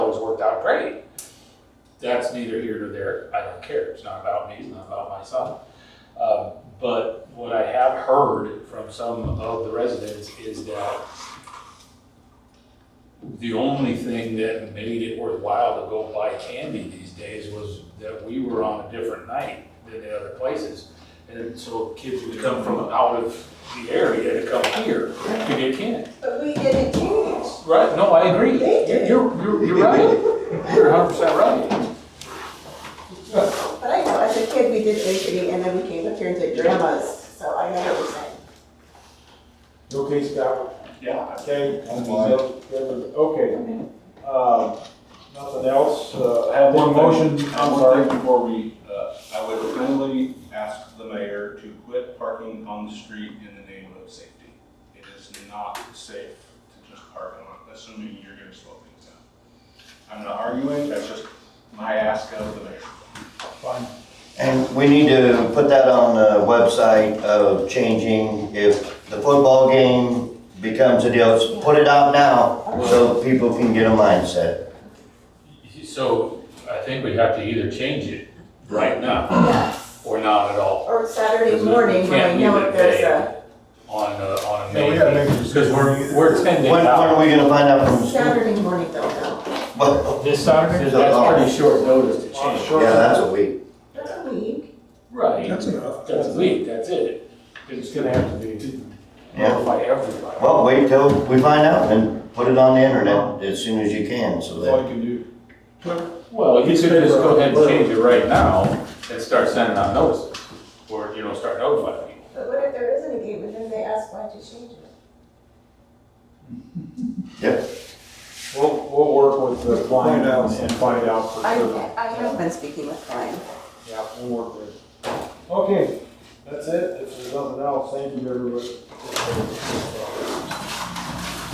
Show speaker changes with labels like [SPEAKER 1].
[SPEAKER 1] worked out great. That's neither here nor there. I don't care. It's not about me, it's not about my son. Um, But what I have heard from some of the residents is that the only thing that made it worthwhile to go buy candy these days was that we were on a different night than the other places. And so kids would come from out of the area to come here to get candy.
[SPEAKER 2] But we didn't change.
[SPEAKER 1] Right, no, I agree. You're, you're, you're right. You're hundred percent right.
[SPEAKER 2] But I know, as a kid, we did initiate, and then we came up here and did grandma's, so I know what you're saying.
[SPEAKER 3] Okay, Scott,
[SPEAKER 1] Yeah.
[SPEAKER 3] okay.
[SPEAKER 4] I'm fine.
[SPEAKER 3] Okay, um, nothing else, uh, have
[SPEAKER 4] One
[SPEAKER 3] one
[SPEAKER 4] motion,
[SPEAKER 3] motion,
[SPEAKER 4] I'm
[SPEAKER 3] I'm sorry.
[SPEAKER 4] before we, uh, I would kindly ask the mayor to quit parking on the street in the name of safety. It is not safe to just park on, assuming you're gonna slow things down. I'm not arguing, that's just my ask of the mayor.
[SPEAKER 5] And we need to put that on the website of changing if the football game becomes a deal, put it out now so people can get a mindset.
[SPEAKER 1] So I think we have to either change it right now
[SPEAKER 2] Yes.
[SPEAKER 1] or not at all.
[SPEAKER 2] Or Saturday morning, when I know if there's a,
[SPEAKER 1] On, uh, on a
[SPEAKER 3] Yeah, we gotta make a
[SPEAKER 1] May, because we're, we're ten days
[SPEAKER 5] When, when are
[SPEAKER 1] out.
[SPEAKER 5] we gonna find out from the school?
[SPEAKER 2] Saturday morning, don't know.
[SPEAKER 5] Well,
[SPEAKER 1] This Saturday, that's
[SPEAKER 3] Oh.
[SPEAKER 1] pretty short notice to change.
[SPEAKER 5] yeah, that's a week.
[SPEAKER 2] That's a week.
[SPEAKER 1] Right,
[SPEAKER 3] That's
[SPEAKER 1] that's
[SPEAKER 3] enough.
[SPEAKER 1] a week, that's it.
[SPEAKER 3] It's gonna have to be.
[SPEAKER 5] Yeah.
[SPEAKER 1] Notify everybody.
[SPEAKER 5] Well, wait till we find out and put it on the internet as soon as you can so
[SPEAKER 3] That's
[SPEAKER 5] that.
[SPEAKER 3] all you can do.
[SPEAKER 1] Well, you could just go ahead and change it right now and start sending out notices, or, you know, start notifying people.
[SPEAKER 2] But what if there isn't a game, and then they ask why you change it?
[SPEAKER 3] We'll, we'll work with the client
[SPEAKER 4] Find out.
[SPEAKER 3] and find out for
[SPEAKER 2] I,
[SPEAKER 3] sure.
[SPEAKER 2] I have been speaking with Brian.
[SPEAKER 3] Yeah, we'll work with it. Okay, that's it. If there's nothing else, thank you, everybody.